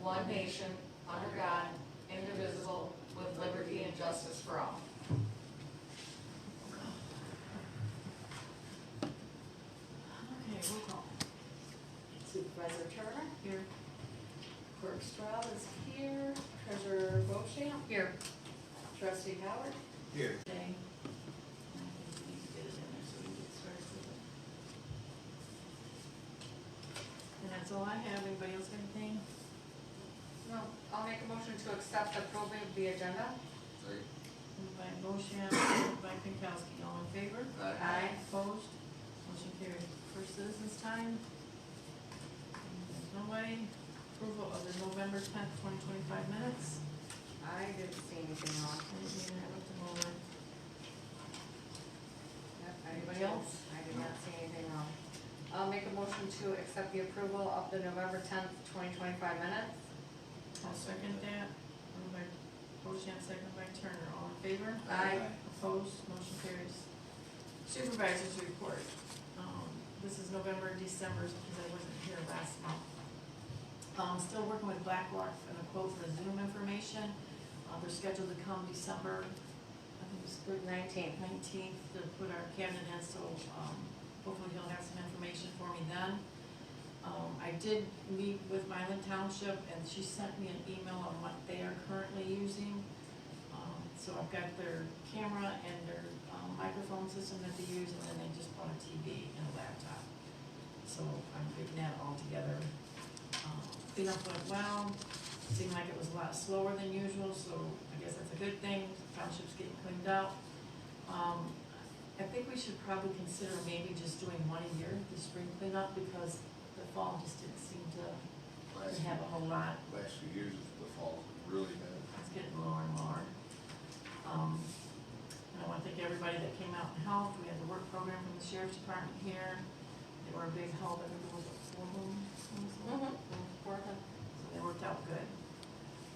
one nation, under God, indivisible, with liberty and justice for all. Okay, roll call. Supervisor Turner, Here. Clerk Strad is here, Treasurer Bochamp, Here. Trustee Howard. Here. Day. I think we need to get it in there so we can get started with it. And that's all I have. Anybody else have anything? No, I'll make a motion to accept the probate of the agenda. Moved by Bochamp, seconded by Pinkowski. All in favor? Aye. Opposed? Motion carried. First citizens time. There's Nobody. Approval of the November tenth, twenty twenty-five minutes. I didn't see anything wrong. Anything I looked them over? Yep, I did Anybody too. else? I did not see anything wrong. I'll make a motion to accept the approval of the November tenth, twenty twenty-five minutes. I'll second that. Moved by Bochamp, seconded by Turner. All in favor? Aye. Opposed, motion carries. Supervisors report. Um, This is November, December, because I wasn't here last month. Um, Still working with Blackrock on a quote for the Zoom information. Uh, They're scheduled to come December, I think it's thir- Nineteen. nineteenth to put our cabinet in, so um, hopefully he'll have some information for me then. Um, I did meet with Mylan Township, and she sent me an email on what they are currently using. Um, So I've got their camera and their um, microphone system that they use, and then they just bought a TV and a laptop. So I'm putting that all together. Um, Cleanup went well, seemed like it was a lot slower than usual, so I guess that's a good thing, township's getting cleaned out. Um, I think we should probably consider maybe just doing one a year, the spring cleanup, because the fall just didn't seem to Last, have a whole lot. last few years of the fall, really bad. It's getting lower and lower. Um, and I want to thank everybody that came out and helped. We had the work program from the sheriff's department here. They were a big help. I think it was four of them. Mm-hmm. four of them? Four of them. So they worked out good.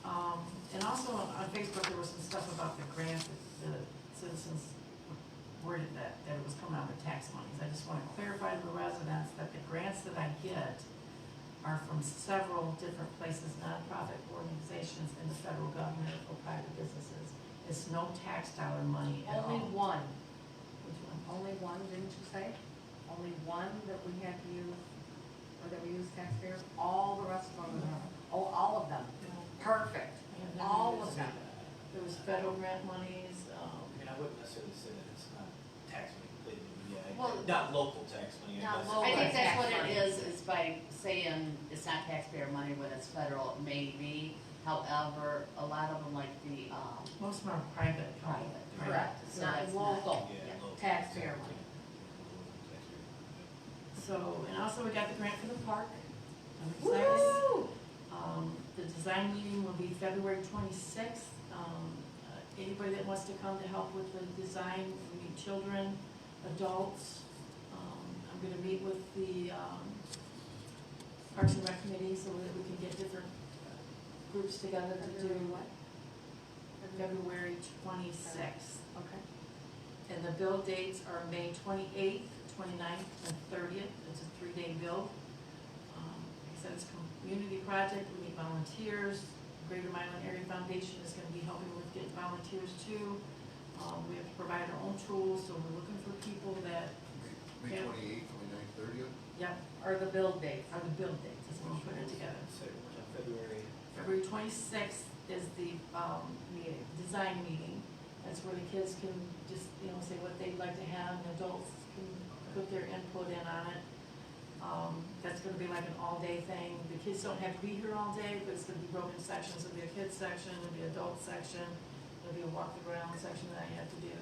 Um, and also on Facebook, there was some stuff about the grant that the citizens worded that, that it was coming out of tax monies. I just want to clarify to the residents that the grants that I get are from several different places, nonprofit organizations in the federal government or private businesses. It's no tax dollar money at all. Only one, Which one? only one, didn't you say? Only one that we had to use, or that we use taxpayers, all the rest of them, oh, all of them. Perfect, Yeah, all there of is- them. There was federal grant monies, um, I mean, I wouldn't necessarily say that it's not tax money completely, but yeah, Well- I- not local tax money. I Not guess. local. I think that's what Tax money. it is, is by saying it's not taxpayer money when it's federal, maybe. However, a lot of them like the, um, most of them are private. private. Right. Correct, it's So not that's not- local, Yeah, local. taxpayer Yeah, money. local taxpayer money, So, and also we got the grant for the park. I'm excited. Woo! Um, the design meeting will be February twenty-sixth. Um, uh, anybody that wants to come to help with the design, we need children, adults. Um, I'm gonna meet with the, um, Parks and Rec Committee so that we can get different uh, groups together to do February what? February twenty-sixth. Okay. And the bill dates are May twenty-eighth, 29th, and thirtieth, it's a three-day bill. Um, Like I said, it's a community project, we need volunteers, Greater Mylan Area Foundation is gonna be helping with getting volunteers too. Um, we have to provide our own tools, so we're looking for people that, May Yeah. twenty-eighth, twenty-ninth, thirtieth? yep, Or the bill dates. are the bill dates, is we'll put it together. yeah. So, uh, February, February twenty-sixth is the, um, meeting, design meeting. That's where the kids can just, you know, say what they'd like to have, and adults can put their input in on it. Um, that's gonna be like an all-day thing. The kids don't have to be here all day, but it's gonna be broken sections. There'll be a kids section, there'll be adult section, there'll be a walk the ground section that I have to do.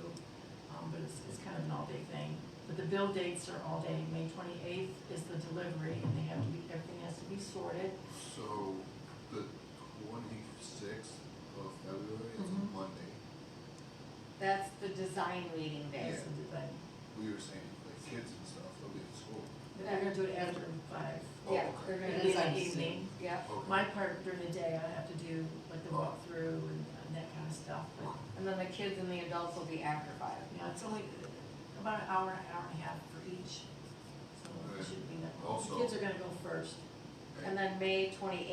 Um, but it's, it's kind of an all-day thing. But the bill dates are all day. May twenty-eighth is the delivery, and they have to be, everything has to be sorted. So the twenty-sixth of February is Mhm. Monday. That's the design meeting day. Yeah. That's the design. We were saying, like, kids and stuff, they'll be in school. They're gonna do it after five. Yeah, they're gonna It do is that. an evening. Yep. Okay. My part during the day, I have to do like the walkthrough and and that kind of stuff, but, And then the kids and the adults will be after five. you know, it's only about an hour, an hour and a half for each. So it shouldn't be that long. Also- Kids are gonna go first. And then May twenty-eighth